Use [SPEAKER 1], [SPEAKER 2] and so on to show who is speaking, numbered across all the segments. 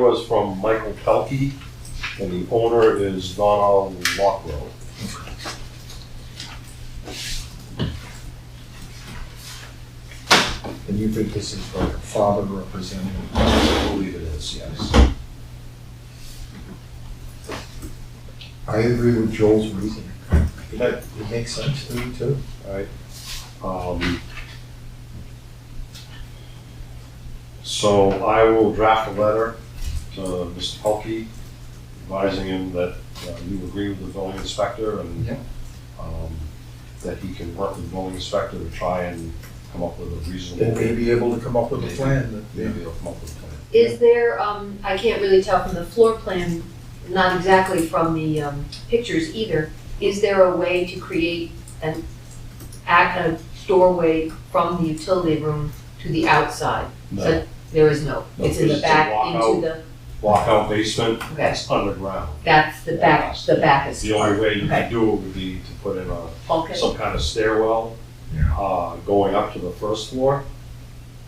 [SPEAKER 1] was from Michael Pelkey, and the owner is Donald Lockrow.
[SPEAKER 2] And you think this is like a father representing?
[SPEAKER 1] I believe it is, yes.
[SPEAKER 2] I agree with Joel's reasoning.
[SPEAKER 1] Okay.
[SPEAKER 2] It makes sense to me too.
[SPEAKER 1] Alright. Um, So I will draft a letter to Mr. Pelkey advising him that uh, you agree with the building inspector and
[SPEAKER 2] Yeah.
[SPEAKER 1] um, that he can work with the building inspector to try and come up with a reasonable.
[SPEAKER 2] They may be able to come up with a plan that.
[SPEAKER 1] Maybe they'll come up with a plan.
[SPEAKER 3] Is there, um, I can't really tell from the floor plan, not exactly from the, um, pictures either. Is there a way to create an, act, a doorway from the utility room to the outside?
[SPEAKER 1] No,
[SPEAKER 3] So There is no,
[SPEAKER 1] No,
[SPEAKER 3] it's in the
[SPEAKER 1] it's a
[SPEAKER 3] back
[SPEAKER 1] walkout.
[SPEAKER 3] into the,
[SPEAKER 1] lockout basement,
[SPEAKER 3] Okay.
[SPEAKER 1] it's underground.
[SPEAKER 3] that's the back, the back is.
[SPEAKER 1] The only way you
[SPEAKER 3] Okay.
[SPEAKER 1] could do it would be to put in a,
[SPEAKER 3] Okay,
[SPEAKER 1] some kind of stairwell,
[SPEAKER 2] Yeah.
[SPEAKER 1] uh, going up to the first floor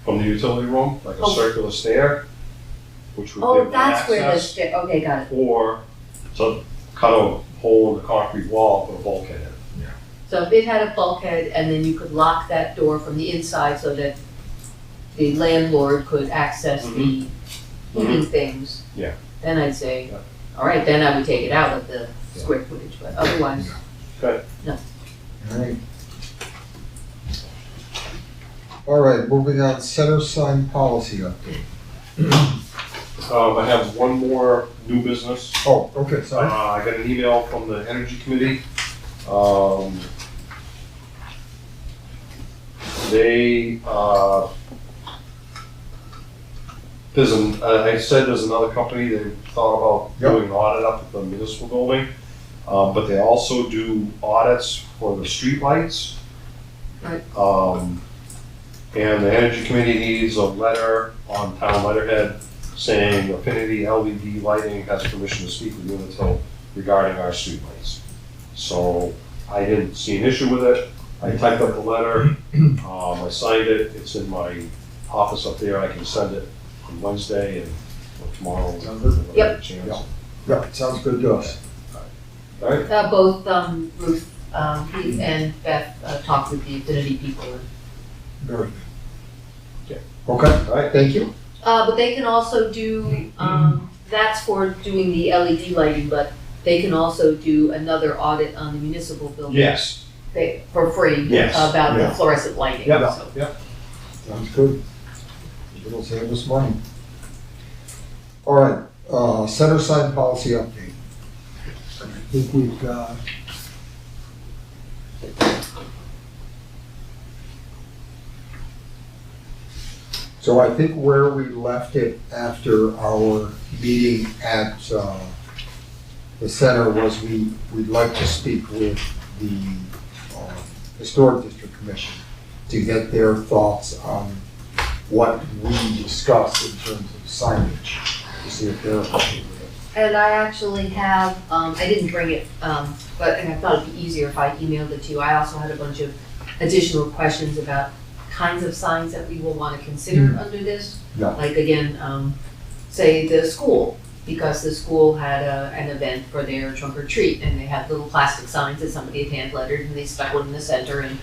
[SPEAKER 1] from the utility room, like a
[SPEAKER 3] Oh.
[SPEAKER 1] circular stair, which would
[SPEAKER 3] oh,
[SPEAKER 1] give them
[SPEAKER 3] that's where the,
[SPEAKER 1] access.
[SPEAKER 3] sta- okay, got it.
[SPEAKER 1] Or to cut a hole in the concrete wall, put a bulkhead in.
[SPEAKER 3] So if it had a bulkhead and then you could lock that door from the inside so that the landlord could access the heating things.
[SPEAKER 1] Mm-hmm. Yeah.
[SPEAKER 3] Then I'd say,
[SPEAKER 1] Yeah.
[SPEAKER 3] all right, then I would take it out of the
[SPEAKER 1] Yeah.
[SPEAKER 3] square footage, but otherwise,
[SPEAKER 2] All right. All right, moving on, center sign policy update.
[SPEAKER 1] Um, I have one more new business.
[SPEAKER 2] Oh, okay,
[SPEAKER 1] Uh,
[SPEAKER 2] sorry.
[SPEAKER 1] I got an email from the Energy Committee. Um, They, uh, there's an, I I said there's another company, they thought about
[SPEAKER 2] Yep.
[SPEAKER 1] doing an audit up at the municipal building. Uh, but they also do audits for the streetlights.
[SPEAKER 3] Right.
[SPEAKER 1] Um, and the Energy Committee needs a letter on town letterhead saying Affinity LED Lighting has permission to speak with Unitil regarding our streetlights. So I didn't see an issue with it. I typed up the letter, um, I signed it, it's in my office up there, I can send it on Wednesday and or tomorrow.
[SPEAKER 2] Sounds good.
[SPEAKER 1] whenever I get a chance.
[SPEAKER 2] Yep. Yeah, it sounds good to us.
[SPEAKER 1] All right,
[SPEAKER 3] uh, both, um, Ruth, um, Pete and Beth uh, talked with the Infinity people.
[SPEAKER 2] Very
[SPEAKER 1] Yeah.
[SPEAKER 2] good. Okay,
[SPEAKER 1] all right,
[SPEAKER 2] thank you.
[SPEAKER 3] Uh, but they can also do, um, that's for doing the LED lighting, but they can also do another audit on the municipal building.
[SPEAKER 1] yes,
[SPEAKER 3] They, for free.
[SPEAKER 1] Yes.
[SPEAKER 3] About the
[SPEAKER 2] Yeah.
[SPEAKER 3] fluorescent lighting,
[SPEAKER 1] Yeah.
[SPEAKER 3] so.
[SPEAKER 2] Sounds good. It'll save us money. All right, uh, center sign policy update. And I think we've got. So I think where we left it after our meeting at, uh, the center was we, we'd like to speak with the, uh, historic district commission to get their thoughts on what we discussed in terms of signage, to see if they're okay with it.
[SPEAKER 3] And I actually have, um, I didn't bring it, um, but, and I thought it'd be easier if I emailed it to you. I also had a bunch of additional questions about kinds of signs that we will wanna consider under this.
[SPEAKER 2] Yeah.
[SPEAKER 3] Like again, um, say the school, because the school had a, an event for their trunk or treat, and they had little plastic signs that somebody had hand lettered, and they stuck one in the center, and,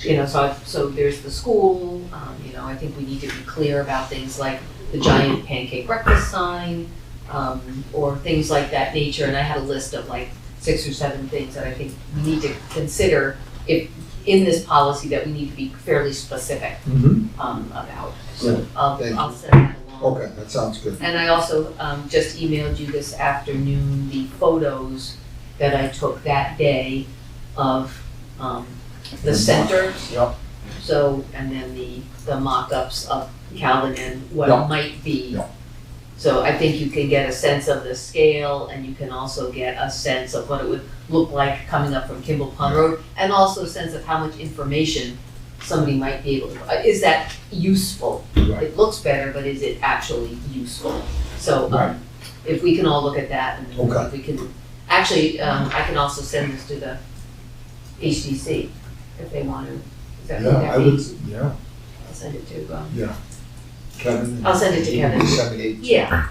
[SPEAKER 3] you know, so, I- so there's the school, um, you know, I think we need to be clear about things like the giant pancake breakfast sign, um, or things like that nature, and I had a list of like six or seven things that I think we need to consider if, in this policy that we need to be fairly specific, um, about, so
[SPEAKER 2] Good.
[SPEAKER 3] I'll,
[SPEAKER 2] Thank
[SPEAKER 3] I'll send that along.
[SPEAKER 2] Okay, that sounds good.
[SPEAKER 3] And I also, um, just emailed you this afternoon, the photos that I took that day of, um, the center.
[SPEAKER 2] Yep.
[SPEAKER 3] So, and then the, the mock-ups of Calvin and what
[SPEAKER 2] Yeah.
[SPEAKER 3] it might be.
[SPEAKER 2] Yeah.
[SPEAKER 3] So I think you can get a sense of the scale and you can also get a sense of what it would look like coming up from Kimball Pond Road. And also a sense of how much information somebody might be able to, uh, is that useful?
[SPEAKER 2] Right.
[SPEAKER 3] It looks better, but is it actually useful? So,
[SPEAKER 2] Right.
[SPEAKER 3] um, if we can all look at that and
[SPEAKER 2] Okay.
[SPEAKER 3] if we can, actually, um, I can also send this to the HDC if they want to. Is that-
[SPEAKER 2] Yeah, I
[SPEAKER 3] that be-
[SPEAKER 2] would, yeah,
[SPEAKER 3] I'll send it to, um,
[SPEAKER 2] Kevin.
[SPEAKER 3] I'll send it to Kevin.
[SPEAKER 2] Disseminate.
[SPEAKER 3] yeah,